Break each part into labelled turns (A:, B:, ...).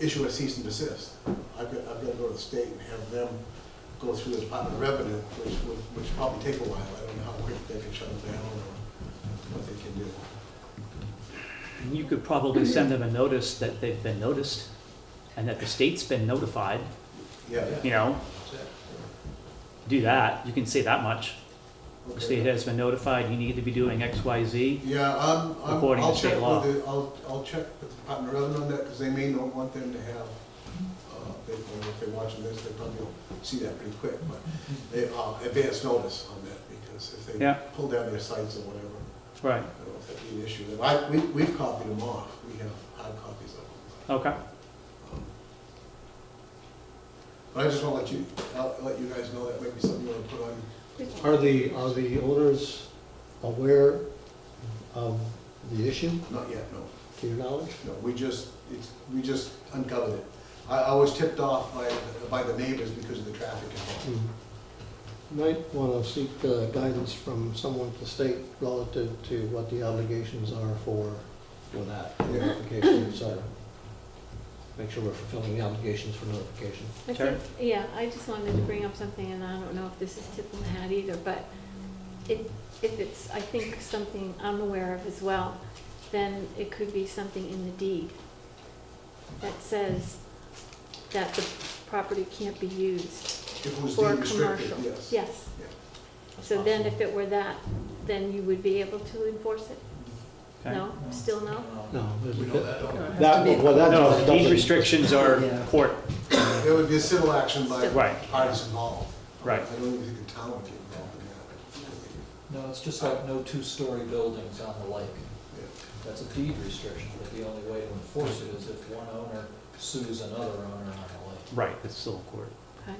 A: issue a cease and desist. I've got, I've got to go to the state and have them go through the Department of Revenue, which would, which probably take a while. I don't know how quick they can shut it down or what they can do.
B: And You could probably send them a notice that they've been noticed and that the state's been notified,
A: Yeah.
B: you know, do that. You can say that much. The
A: Okay.
B: state has been notified, you need to be doing X, Y, Z.
A: Yeah, um, I'm-
B: According to
A: I'll
B: state
A: check
B: law.
A: with the, I'll, I'll check with the Department of Revenue on that, because they may not want them to have, uh, they, or if they're watching this, they probably will see that pretty quick, but they, uh, advance notice on that, because if they
B: Yeah.
A: pull down their sites or whatever, I
B: Right,
A: don't know if that'd be an issue. And I, we, we've copied them off, we have hard copies of them.
B: okay.
A: Um, But I just want to let you, I'll let you guys know that might be something you want to put on,
C: Are the, are the owners aware of the issue,
A: not yet, no.
C: to your knowledge?
A: No, we just, it's, we just uncovered it. I, I was tipped off by, by the neighbors because of the traffic
C: Hmm.
A: involved.
C: Might want to seek uh, guidance from someone at the state relative to what the obligations are for, for that notification, so make sure we're fulfilling the obligations for notification.
D: I
B: Sure.
D: think, yeah, I just wanted to bring up something, and I don't know if this is tip of the hat either, but it, if it's, I think, something I'm aware of as well, then it could be something in the deed that says that the property can't be used
A: If it was
D: for
A: deemed restricted,
D: commercial.
A: yes.
D: Yes,
A: Yeah.
D: so then if it were that, then you would be able to enforce it?
B: Okay.
D: No, still no?
C: No. there's-
E: We know that, don't we?
C: That, well, that
B: No,
C: doesn't.
B: deed restrictions are court,
A: There would be a civil action by
B: Still. Right.
A: parties involved.
B: Right.
A: I don't even think the town would get involved in
E: No, it's just like no two-story buildings on the lake. That's a deed restriction, but the only way to enforce it is if one owner sues another owner on the lake.
B: right, it's still court.
D: Okay.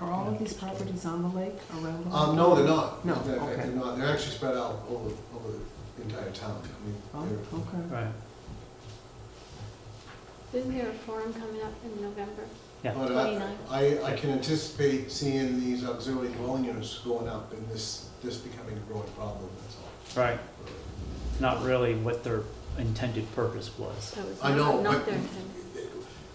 F: Are all of these properties on the lake, around the
A: that.
F: lake?
A: Um, no, they're not.
F: No,
A: They're-
F: okay.
A: They're not, they're actually spread out over, over the entire town. I mean,
F: Oh,
A: they're-
F: okay.
B: Right.
D: Isn't there a forum coming up in November?
B: Yeah.
A: But I-
D: 29.
A: I, I can anticipate seeing these auxiliary dwelling units going up and this, this becoming a growing problem, that's all.
B: Right, not really what their intended purpose was.
D: So it's
A: I know,
D: not, not
A: but-
D: their intent.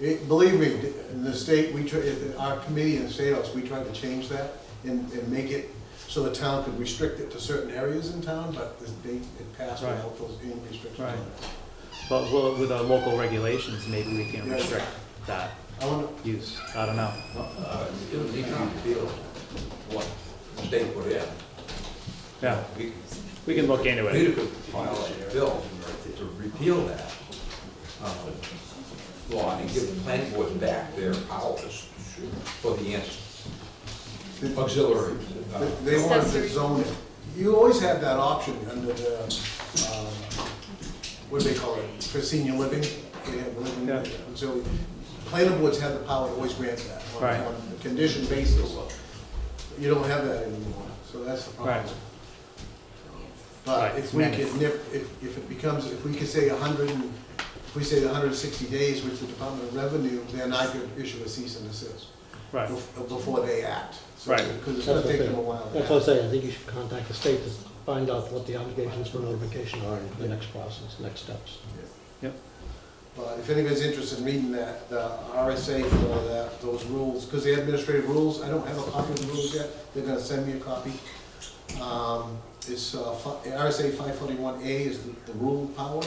A: It, believe me, in the state, we, tr- if our committee in the state house, we tried to change that and, and make it so the town could restrict it to certain areas in town, but this date, it passed
B: Right.
A: without those any restrictions on
B: Right.
A: it.
B: But we'll- with our local regulations, maybe we can
A: Yeah.
B: restrict that
A: I wanna,
B: use, I don't know.
G: Uh, It was easy to feel what they put in.
B: Yeah,
G: We
B: we can look into it.
G: we could file a bill to repeal that um, law and give the planning board back their powers for the ans- auxiliary. uh,
A: They- They wanted to
D: Accessory.
A: zone it. You always have that option under the, um, what do they call it, for senior living? They have living,
B: Yeah.
A: so planning boards have the power to always grant that on-
B: Right.
A: on a condition basis. You don't have that anymore, so that's the problem.
B: Right.
A: But
B: Right,
A: if
B: it's
A: we
B: managed.
A: could nip, if, if it becomes, if we could say a hundred and, if we say the hundred and sixty days with the Department of Revenue, then I could issue a cease and desist
B: Right,
A: bef- before they act. So-
B: Right.
A: Because it's gonna take them a while. to
C: That's what I'm
A: act.
C: saying, I think you should contact the state to find out what the obligations for notification are in the next process, next steps.
A: But if anybody's interested in reading that, the RSA for that, those rules, because the administrative rules, I don't have a copy of the rules yet, they're gonna send me a copy. Um, It's, uh, fi- RSA five forty-one A is the- the rule power.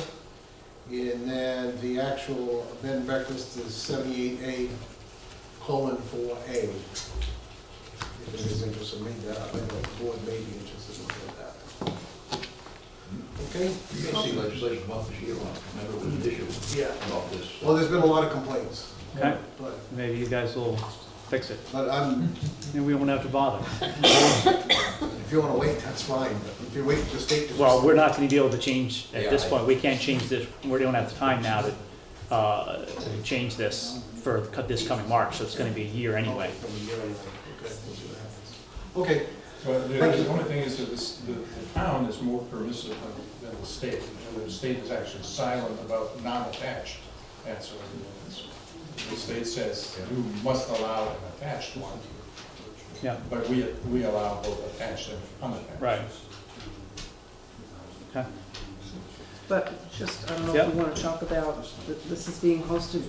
A: And then the actual bed and breakfast is seventy-eight A colon four A. If anybody's interested in reading that, I think the board may be interested in looking at that. Okay?
G: You can see legislation about this year, I remember it was an issue
A: Yeah.
G: about this.
A: Well, there's been a lot of complaints,
B: okay,
A: but
B: maybe you guys will fix it,
A: But I'm,
B: and we won't have to bother.
A: if you wanna wait, that's fine, but if you wait for the state to.
B: Well, we're not gonna be able to change, at this
G: Yeah, I-
B: point, we can't change this, we don't have the time now to, uh, change this for cut this coming March, so it's gonna be a
A: Oh,
B: year anyway.
A: From a year anyway, okay, we'll see what happens. Okay,
H: But the
A: Thank you.
H: the only thing is that this- the the town is more permissive than- than the state. And The state is actually silent about non-attached ancillary units. The state says you must allow an attached one,
B: Yeah,
H: but we, we allow both attached and unattached.
B: right. Okay.
F: But just, I don't know
B: Yep.
F: if we want to talk about, that this is being hosted